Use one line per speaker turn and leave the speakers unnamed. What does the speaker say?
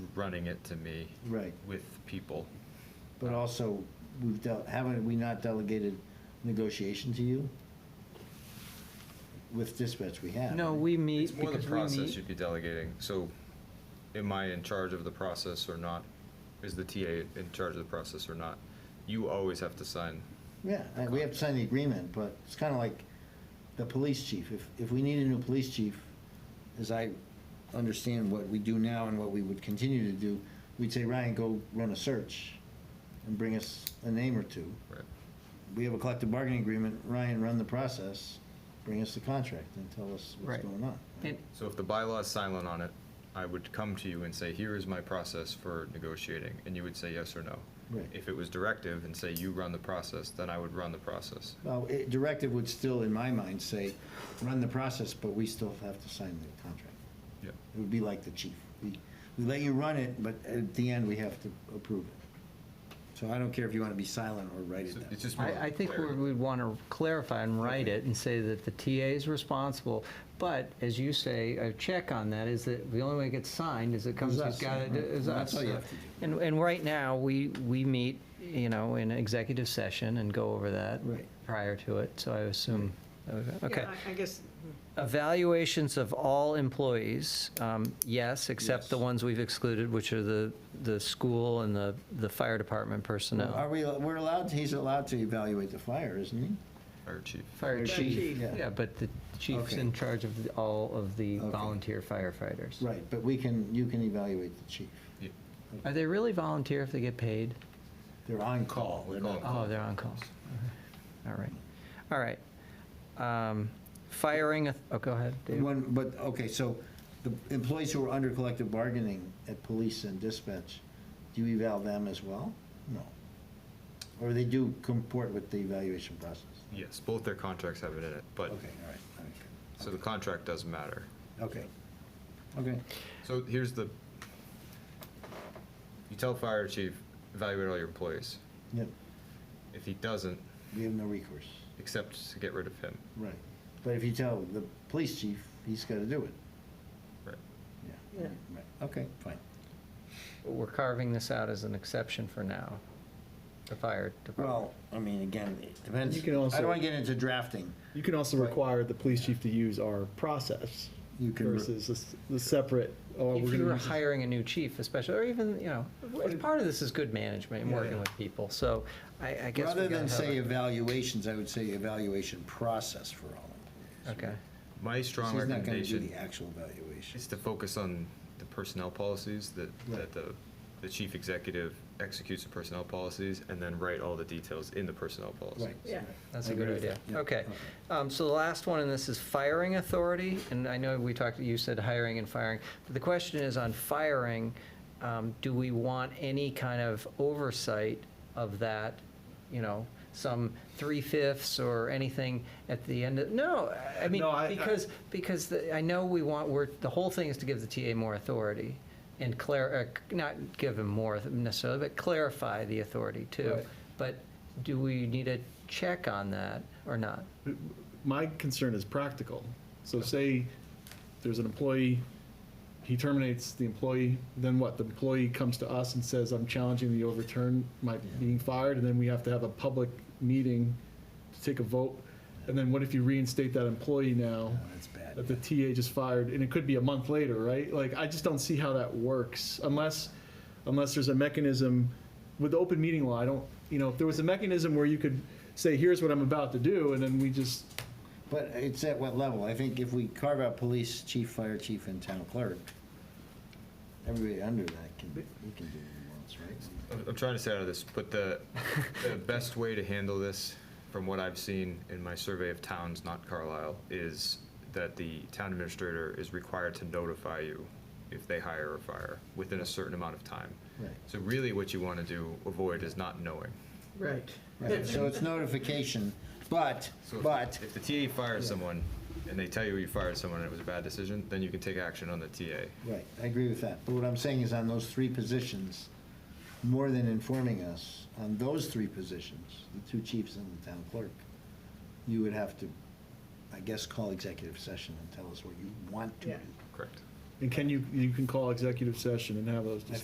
running it to me
Right.
with people.
But also, we've dealt, haven't we not delegated negotiation to you? With dispatch, we have.
No,
right?
we meet
It's more the
because we
process
meet.
you'd be delegating. So am I in charge of the process or not? Is the TA in charge of the process or not? You always have to sign.
Yeah, and we have to sign the agreement, but it's kind of like the police chief. If, if we need a new police chief, as I understand what we do now and what we would continue to do, we'd say, Ryan, go run a search and bring us a name or two.
Right.
We have a collective bargaining agreement, Ryan, run the process, bring us the contract and tell us what's
Right.
going on.
And
So if the bylaw is silent on it, I would come to you and say, here is my process for negotiating, and you would say yes or no.
Right.
If it was directive and say, you run the process, then I would run the process.
Well, it- directive would still, in my mind, say, run the process, but we still have to sign the contract.
Yeah.
It would be like the chief. We, we let you run it, but at the end, we have to approve it. So I don't care if you want to be silent or write it
So
down.
It's just more.
I, I think we
clarity.
would want to clarify and write it and say that the TA is responsible. But as you say, a check on that is that the only way it gets signed is it comes,
Is
it's
us,
got,
right.
is
That's
us.
all you have to do.
And, and right now, we, we meet, you know, in executive session and go over that
Right.
prior to it, so I assume, okay.
Yeah, I- I guess,
Evaluations of all employees, um, yes, except the
Yes.
ones we've excluded, which are the, the school and the, the fire department
Are
personnel.
we, we're allowed, to- he's allowed to evaluate the fire, isn't
Fire chief.
Fire
Fire
chief,
chief,
yeah.
yeah, but the chief's
Okay.
in charge of the- all of the
Okay.
volunteer firefighters.
he? Right, but we can, you can evaluate the chief.
Yeah.
Are they really volunteer if they get paid?
They're on call.
We
They're
call
not-
them.
Oh, they're on calls. All right, all right. Um, Firing, a- oh, go ahead, Dave.
One, but, okay, so the employees who are under collective bargaining at police and dispatch, do you eval them as well? No. Or they do comport with the evaluation process?
Yes, both their contracts have it in it, but,
Okay, all right, all
so the contract does matter.
right, okay. Okay,
So here's the, you tell fire chief, evaluate all your employees.
yep,
If he doesn't,
we have no recourse,
except to get rid of him.
right. But if you tell the police chief, he's gotta do it,
Right.
yeah.
Yeah.
Right. Okay, fine.
we're carving this out as an exception for now, the fire department.
Well, I mean, again, it depends.
You can
I
also-
don't wanna get into drafting.
You can also require the police chief to use our process
You can-
versus the s- the separate, oh, we're
If you
gonna
were
use this-
hiring a new chief especially, or even, you know, part of this is good management and
Yeah,
working
yeah.
with people, so I, I guess. we
Rather
gotta
than
have
say
a-
evaluations, I would say evaluation process for all employees.
Okay.
My strong
She's not gonna do
recommendation
the actual evaluation.
is to focus on the personnel policies that,
Right.
that the, the chief executive executes the personnel policies and then write all the details in the personnel policy.
Right.
yeah,
That's
I
a good
agree with
idea.
that, yeah. Uh-huh.
Okay.
Okay.
Um, So the last one in this is firing authority, and I know we talked, you said hiring and firing, but the question is on firing, um, do we want any kind of oversight of that, you know, some three-fifths or anything at the end of, no, I mean,
No, I- I-
because, because the- I know we want, we're, the whole thing is to give the TA more authority and clar, uh, not give him more necessarily, but clarify the authority too.
Right.
But do we need a check on that or not?
My concern is practical. So say there's an employee, he terminates the employee, then what? The employee comes to us and says, I'm challenging the overturn, my being fired, and then we have to have a public meeting to take a vote. And then what if you reinstate that employee now?
No, That's bad.
that the TA just fired, and it could be a month later, right? Like, I just don't see how that works unless, unless there's a mechanism with the open meeting law. I don't, you know, if there was a mechanism where you could say, here's what I'm about to do, and then we just,
But it's at what level? I think if we carve out police, chief, fire chief, and town clerk, everybody under that can, we can do what he wants, right?
I'm, I'm trying to stay out of this, but the, the best way to handle this, from what I've seen in my survey of towns, not Carlisle, is that the town administrator is required to notify you if they hire or fire within a certain amount of time.
Right.
So really what you want to do, avoid is not knowing.
right.
Right, so it's notification, but,
So if-
but,
If the TA fires someone and they tell you you fired someone and it was a bad decision, then you can take action on the TA.
right, I agree with that. But what I'm saying is on those three positions, more than informing us, on those three positions, the two chiefs and the town clerk, you would have to, I guess, call executive session and tell us what you want to
Yeah.
do.
Correct.
and can you, you can call executive session and have those
I